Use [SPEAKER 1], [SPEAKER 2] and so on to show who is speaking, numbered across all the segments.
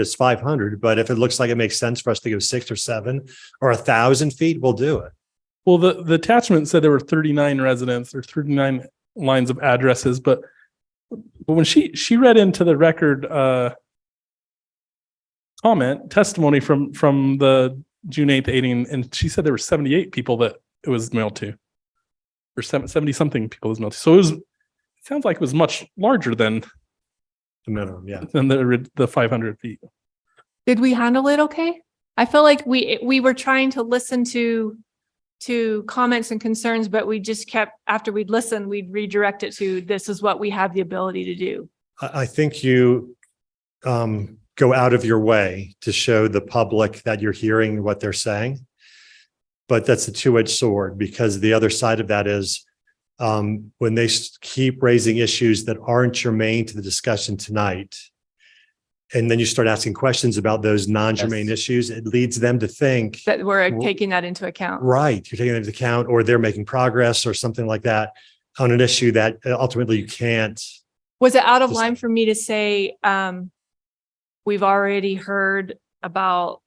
[SPEAKER 1] is five hundred, but if it looks like it makes sense for us to go six or seven or a thousand feet, we'll do it.
[SPEAKER 2] Well, the, the attachment said there were thirty-nine residents or thirty-nine lines of addresses, but but when she, she read into the record, uh, comment, testimony from, from the June eighth eighteen, and she said there were seventy-eight people that it was mailed to. Or seven- seventy-something people it was mailed to. So it was, it sounds like it was much larger than,
[SPEAKER 1] The minimum, yeah.
[SPEAKER 2] than the, ri- the five hundred feet.
[SPEAKER 3] Did we handle it okay? I feel like we, we were trying to listen to, to comments and concerns, but we just kept, after we'd listen, we'd redirect it to, this is what we have the ability to do.
[SPEAKER 1] I, I think you um, go out of your way to show the public that you're hearing what they're saying. But that's a two-edged sword because the other side of that is um, when they s- keep raising issues that aren't germane to the discussion tonight, and then you start asking questions about those non-germane
[SPEAKER 4] Yes.
[SPEAKER 1] issues, it leads them to think
[SPEAKER 3] That we're
[SPEAKER 1] Well-
[SPEAKER 3] taking that into account.
[SPEAKER 1] Right. You're taking that into account, or they're making progress or something like that on an issue that uh, ultimately you can't.
[SPEAKER 3] Was it out of
[SPEAKER 1] Just-
[SPEAKER 3] line for me to say, um, we've already heard about,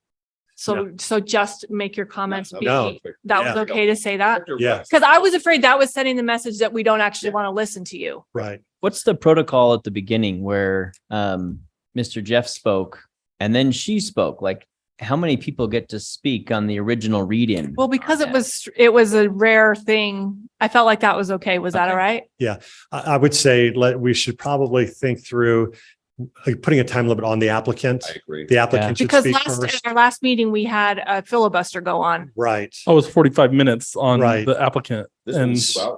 [SPEAKER 3] so, so just make your comments be,
[SPEAKER 1] No.
[SPEAKER 3] that was
[SPEAKER 1] Yeah.
[SPEAKER 3] okay to say that?
[SPEAKER 1] Yeah.
[SPEAKER 3] Because Uh, I was afraid that was sending the message that we don't actually want to listen to you.
[SPEAKER 1] Right.
[SPEAKER 4] What's the protocol at the beginning where um Mr. Jeff spoke and then she spoke? Like how many people get to speak on the original read-in?
[SPEAKER 3] Well, because it
[SPEAKER 4] Yeah.
[SPEAKER 3] was, it was a rare thing. I felt like that was okay. Was that all
[SPEAKER 4] Okay.
[SPEAKER 3] right?
[SPEAKER 1] I, I would say let, we should probably think through like, putting a time limit on the applicant.
[SPEAKER 5] agree.
[SPEAKER 1] The applicant should
[SPEAKER 3] Because
[SPEAKER 1] speak
[SPEAKER 3] last,
[SPEAKER 1] first.
[SPEAKER 3] our last meeting, we had a filibuster go on.
[SPEAKER 1] Right.
[SPEAKER 2] Oh, it was forty-five minutes on
[SPEAKER 1] Right.
[SPEAKER 2] the applicant.
[SPEAKER 5] This
[SPEAKER 2] And-
[SPEAKER 5] one's two hours.
[SPEAKER 3] Yeah,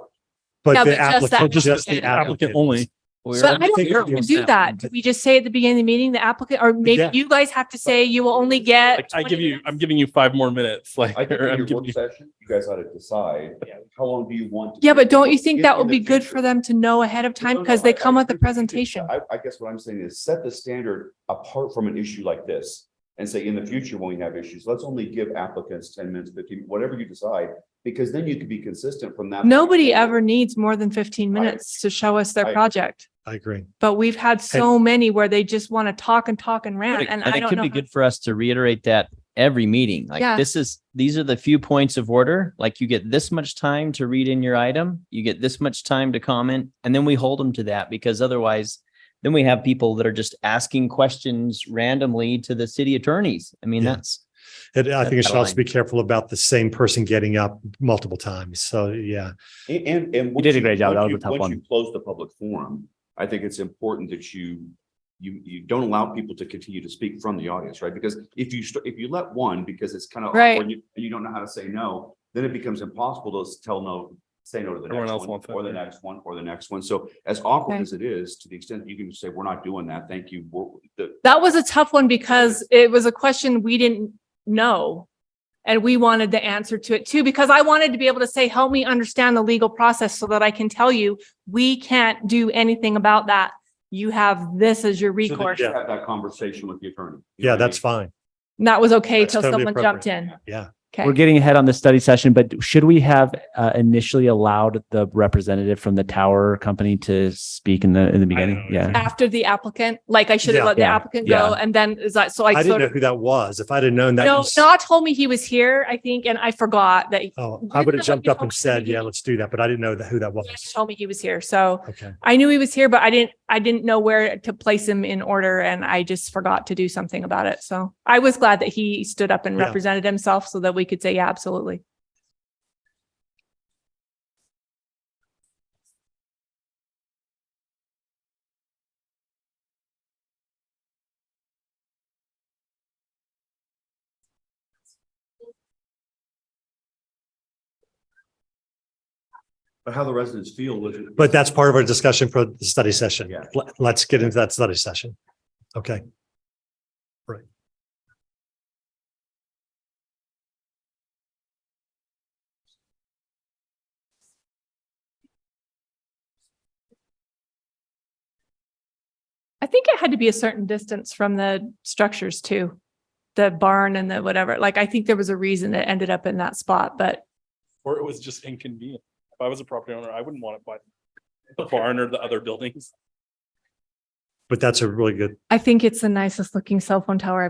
[SPEAKER 1] But
[SPEAKER 3] but
[SPEAKER 1] the
[SPEAKER 3] just the
[SPEAKER 1] applicant, just the
[SPEAKER 3] applicant.
[SPEAKER 2] Applicant only.
[SPEAKER 4] We were-
[SPEAKER 3] But I don't
[SPEAKER 1] think
[SPEAKER 3] think
[SPEAKER 1] it
[SPEAKER 3] we
[SPEAKER 1] was
[SPEAKER 3] do that. Do We just say at the beginning of the meeting, the applicant, or maybe
[SPEAKER 1] Yeah.
[SPEAKER 3] you guys have to say you will only get.
[SPEAKER 2] Like, I give
[SPEAKER 3] 20
[SPEAKER 2] you, I'm giving you five more minutes, like,
[SPEAKER 5] I think
[SPEAKER 2] or I'm
[SPEAKER 5] in your
[SPEAKER 2] giving
[SPEAKER 5] work
[SPEAKER 2] you
[SPEAKER 5] session, you guys ought to decide, how long do you want? to
[SPEAKER 3] Yeah,
[SPEAKER 5] do
[SPEAKER 3] but don't you
[SPEAKER 5] this?
[SPEAKER 3] think
[SPEAKER 5] If
[SPEAKER 3] that
[SPEAKER 5] in
[SPEAKER 3] would
[SPEAKER 5] the
[SPEAKER 3] be good
[SPEAKER 5] future-
[SPEAKER 3] for them to know ahead of time
[SPEAKER 5] No, no,
[SPEAKER 3] because they
[SPEAKER 5] I-
[SPEAKER 3] come
[SPEAKER 5] I
[SPEAKER 3] with the
[SPEAKER 5] agree you.
[SPEAKER 3] presentation?
[SPEAKER 5] I, I guess what I'm saying is set the standard apart from an issue like this and say, in the future, when we have issues, let's only give applicants ten minutes, fifteen, whatever you decide, because then you can be consistent from that. point
[SPEAKER 3] Nobody
[SPEAKER 5] forward.
[SPEAKER 3] ever needs more than fifteen
[SPEAKER 5] I-
[SPEAKER 3] minutes to show us their
[SPEAKER 5] I-
[SPEAKER 3] project.
[SPEAKER 1] I agree.
[SPEAKER 3] But we've had so many where they just want to talk and talk and rant and
[SPEAKER 4] And
[SPEAKER 3] I
[SPEAKER 4] it
[SPEAKER 3] don't
[SPEAKER 4] could
[SPEAKER 3] know.
[SPEAKER 4] be
[SPEAKER 3] how-
[SPEAKER 4] good for us to reiterate that every meeting.
[SPEAKER 3] Yeah.
[SPEAKER 4] Like this is, these are the few points of order. Like you get this much time to read in your item, you get this much time to comment, and then we hold them to that because otherwise then we have people that are just asking questions randomly to the city attorneys. I mean,
[SPEAKER 1] Yeah.
[SPEAKER 4] that's
[SPEAKER 1] And I think you
[SPEAKER 4] That's
[SPEAKER 1] should
[SPEAKER 4] out of
[SPEAKER 1] also be careful about the same person getting up multiple times. So, yeah.
[SPEAKER 5] And, and. and
[SPEAKER 6] You did a
[SPEAKER 5] once
[SPEAKER 6] great job. That
[SPEAKER 5] once
[SPEAKER 6] was
[SPEAKER 5] you-
[SPEAKER 6] a tough
[SPEAKER 5] once
[SPEAKER 6] one.
[SPEAKER 5] you Close the public forum. I think it's important that you, you, you don't allow people to continue to speak from the audience, right? Because if you, st- if you let one, because it's kind of.
[SPEAKER 3] Right.
[SPEAKER 5] And you and you don't know how to say no, then it becomes impossible to s- tell no, say no to the
[SPEAKER 2] Everyone
[SPEAKER 5] next
[SPEAKER 2] else
[SPEAKER 5] one,
[SPEAKER 2] wants that,
[SPEAKER 5] or the
[SPEAKER 2] yeah.
[SPEAKER 5] next one, or the next one. So as awkward
[SPEAKER 3] Okay.
[SPEAKER 5] as it is, to the extent that you can say, we're not doing that, thank you, we're, the,
[SPEAKER 3] That was a tough one because it was a question we didn't know. And we wanted the answer to it too, because I wanted to be able to say, help me understand the legal process so that I can tell you, we can't do anything about that. You have this as your
[SPEAKER 1] that-
[SPEAKER 3] recourse.
[SPEAKER 1] Yeah.
[SPEAKER 3] And
[SPEAKER 5] have that conversation with the attorney. You know
[SPEAKER 1] Yeah,
[SPEAKER 5] what I
[SPEAKER 1] that's
[SPEAKER 5] mean?
[SPEAKER 1] fine.
[SPEAKER 3] that was okay
[SPEAKER 1] That's
[SPEAKER 3] till
[SPEAKER 1] totally
[SPEAKER 3] someone jumped in.
[SPEAKER 1] Yeah.
[SPEAKER 6] We're
[SPEAKER 3] Okay.
[SPEAKER 6] getting ahead on the study session, but should we have uh, initially allowed the representative from the tower company to speak in the in the beginning?
[SPEAKER 2] know.
[SPEAKER 6] Yeah.
[SPEAKER 3] After the applicant, like I should have
[SPEAKER 1] Yeah.
[SPEAKER 3] let the
[SPEAKER 6] Yeah.
[SPEAKER 3] applicant go.
[SPEAKER 6] Yeah.
[SPEAKER 3] And then is that, so I
[SPEAKER 1] I didn't
[SPEAKER 3] sort
[SPEAKER 1] know
[SPEAKER 3] of,
[SPEAKER 1] who that was. If I'd have known that.
[SPEAKER 3] no,
[SPEAKER 1] was-
[SPEAKER 3] Shaw told me he was here, I think, and I forgot that.
[SPEAKER 1] Oh,
[SPEAKER 3] Didn't
[SPEAKER 1] I would
[SPEAKER 3] know
[SPEAKER 1] have
[SPEAKER 3] what
[SPEAKER 1] jumped
[SPEAKER 3] you
[SPEAKER 1] up
[SPEAKER 3] told
[SPEAKER 1] and
[SPEAKER 3] me.
[SPEAKER 1] said, yeah, let's do that. But I didn't know that who that was.
[SPEAKER 3] He told me he was here. So
[SPEAKER 1] Okay.
[SPEAKER 3] I knew he was here, but I didn't, I didn't know where to place him in order and I just forgot to do something about it. So I was glad that he stood up and
[SPEAKER 1] Yeah.
[SPEAKER 3] represented himself so that we could say, yeah, absolutely.
[SPEAKER 5] But how the residents feel was.
[SPEAKER 1] But that's part of our discussion for the study session.
[SPEAKER 5] Yeah.
[SPEAKER 1] Let- Let's get into that study session. Okay. Right.
[SPEAKER 3] I think it had to be a certain distance from the structures too. The barn and the whatever, like I think there was a reason it ended up in that spot, but
[SPEAKER 2] or it was just inconvenient. If I was a property owner, I wouldn't want it by the barn or the other buildings.
[SPEAKER 1] but that's a really good
[SPEAKER 3] I think it's the nicest looking cell phone tower I've